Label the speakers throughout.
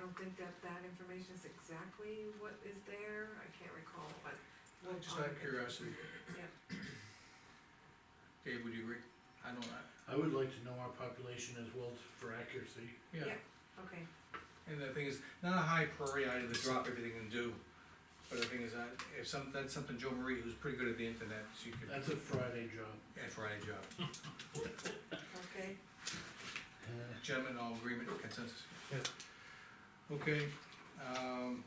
Speaker 1: don't think that that information is exactly what is there, I can't recall, but.
Speaker 2: Well, just out of curiosity.
Speaker 1: Yeah.
Speaker 2: Dave, would you agree? I don't, I,
Speaker 3: I would like to know our population as well for accuracy.
Speaker 2: yeah,
Speaker 1: Yeah. Okay,
Speaker 2: and the thing is, not a high priority item to drop everything and do. But the thing is, that if some, that's something Joe Marie, who's pretty good at the internet, she could,
Speaker 3: That's a Friday job.
Speaker 2: that's right, Joe.
Speaker 1: okay,
Speaker 2: Gentlemen, all agreement, consensus?
Speaker 3: Yeah.
Speaker 2: Okay, um,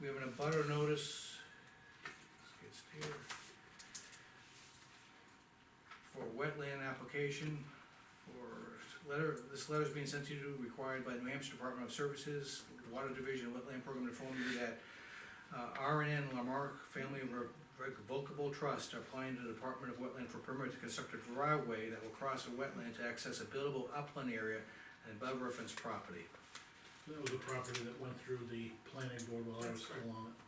Speaker 2: we have an abutter notice. Let's get here. For wetland application, for letter, this letter's being sent to you, required by New Hampshire Department of Services, Water Division, Wetland Program to inform you that uh, R and N Lamarck Family Revocable Trust are applying to the Department of Wetland for permit to construct a driveway that will cross a wetland to access a buildable upland area and above reference property.
Speaker 3: That was a property that went through the planning board while I was
Speaker 1: That's correct.
Speaker 3: still on it.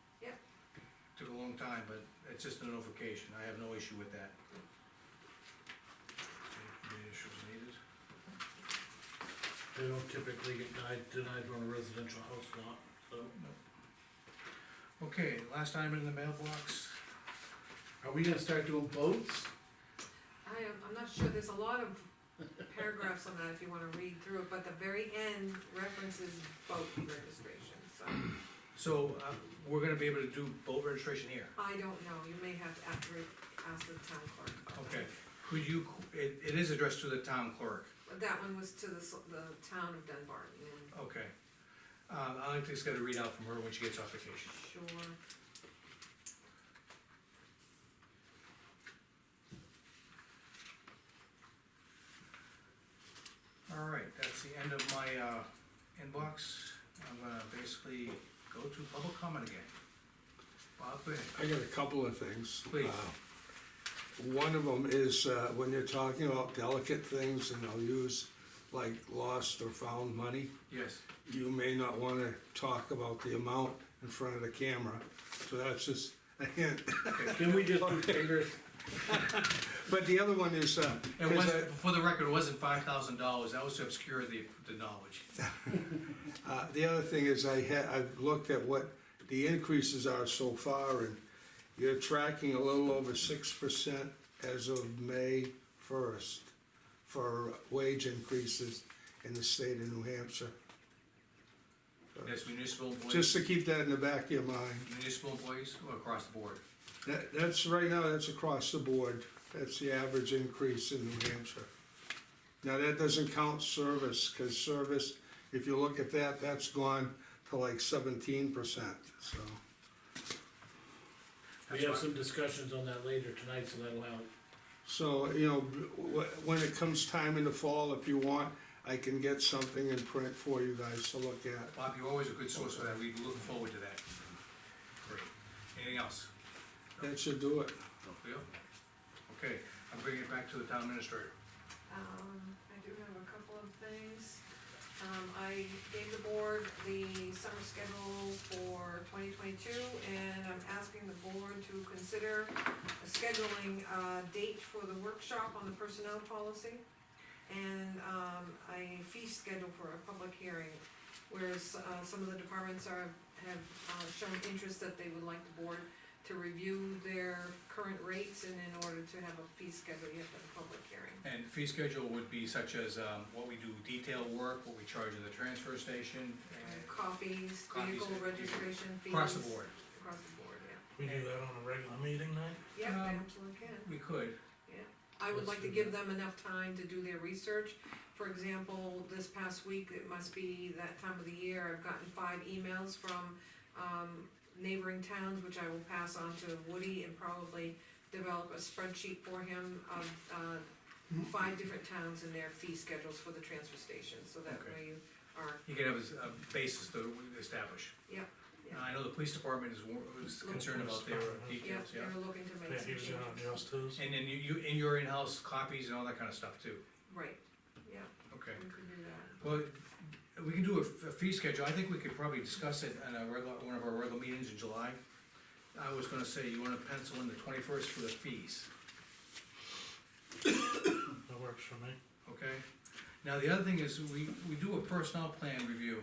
Speaker 2: Took a long time, but it's just a notification, I have no issue with that. Any issues needed?
Speaker 3: They don't typically get denied, denied on a residential house lot, so.
Speaker 2: Okay, last item in the mailbox,
Speaker 3: Are we gonna start doing boats?
Speaker 1: I am, I'm not sure, there's a lot of paragraphs on that if you wanna read through it, but the very end references boat registration, so.
Speaker 2: so, uh, we're gonna be able to do boat registration here.
Speaker 1: I don't know, you may have to after, ask the town clerk about that.
Speaker 2: Okay, could you, it, it is addressed to the town clerk,
Speaker 1: But That one was to the, s- the town of Dunbar, and
Speaker 2: okay. Uh, I think it's got to read out from her when she gets off vacation.
Speaker 1: sure,
Speaker 2: All right, that's the end of my, uh, inbox, I'm gonna basically go to public comment again. Bob, go ahead.
Speaker 4: I got a couple of things.
Speaker 2: Please.
Speaker 4: Uh, One of them is, uh, when you're talking about delicate things and they'll use like lost or found money,
Speaker 2: yes,
Speaker 4: you may not wanna talk about the amount in front of the camera, so that's just a hint.
Speaker 3: Can we just do fingers?
Speaker 4: But the other one is, uh,
Speaker 2: It
Speaker 4: 'cause
Speaker 2: was,
Speaker 4: I-
Speaker 2: for the record, it wasn't five thousand dollars, that was to obscure the, the knowledge.
Speaker 4: Uh, The other thing is I had, I've looked at what the increases are so far and you're tracking a little over six percent as of May first for wage increases in the state of New Hampshire.
Speaker 2: That's municipal employees,
Speaker 4: Just to keep that in the back of your mind.
Speaker 2: municipal employees or across the board.
Speaker 4: That, that's, right now, that's across the board. That's the average increase in New Hampshire. Now, that doesn't count service, cause service, if you look at that, that's gone to like seventeen percent, so.
Speaker 3: We
Speaker 2: That's
Speaker 3: have
Speaker 2: fine.
Speaker 3: some discussions on that later tonight, so that'll help.
Speaker 4: So, you know, wh- when it comes time in the fall, if you want, I can get something in print for you guys to look at.
Speaker 2: Bob, you're always a good source for that, we look forward to that. Great. Anything else?
Speaker 4: That should do it.
Speaker 2: Leo? Okay, I'm bringing it back to the town administrator.
Speaker 1: Um, I do have a couple of things. Um, I gave the board the summer schedule for twenty twenty-two, and I'm asking the board to consider scheduling a date for the workshop on the personnel policy, and, um, a fee schedule for a public hearing, whereas, uh, some of the departments are, have, uh, shown interest that they would like the board to review their current rates, and in order to have a fee schedule, you have to have a public hearing.
Speaker 2: And fee schedule would be such as, um, what we do detail work, what we charge in the transfer station, and
Speaker 1: Uh, Copies,
Speaker 2: Copies,
Speaker 1: vehicle
Speaker 2: yeah.
Speaker 1: registration fees.
Speaker 2: across the board.
Speaker 1: Across the board, yeah.
Speaker 5: We do that on a regular meeting night?
Speaker 1: Yeah, they
Speaker 2: Um,
Speaker 1: absolutely can.
Speaker 2: We could,
Speaker 1: I would
Speaker 3: Let's
Speaker 1: like to
Speaker 3: do
Speaker 1: give them enough time to do their research. For example, this past week, it must be that time of the year, I've gotten five emails from, um, neighboring towns, which I will pass on to Woody and probably develop a spreadsheet for him of, uh, five different towns and their fee schedules for the transfer station, so that
Speaker 2: Okay.
Speaker 1: way you are,
Speaker 2: you could have a a basis to establish.
Speaker 1: Yeah, yeah.
Speaker 2: I know the police department is, wor- is concerned about their
Speaker 1: yeah,
Speaker 2: details, yeah.
Speaker 1: they're looking to make
Speaker 5: That
Speaker 1: some
Speaker 5: he was
Speaker 1: changes.
Speaker 5: gonna adjust his?
Speaker 2: And then you, you, in your in-house copies and all that kind of stuff too,
Speaker 1: Right, yeah,
Speaker 2: okay.
Speaker 1: we could do that.
Speaker 2: Well, we can do a f- a fee schedule, I think we could probably discuss it in a regular, one of our regular meetings in July. I was gonna say, you wanna pencil in the twenty-first for the fees,
Speaker 5: That works for me.
Speaker 2: okay? Now, the other thing is, we, we do a personnel plan review.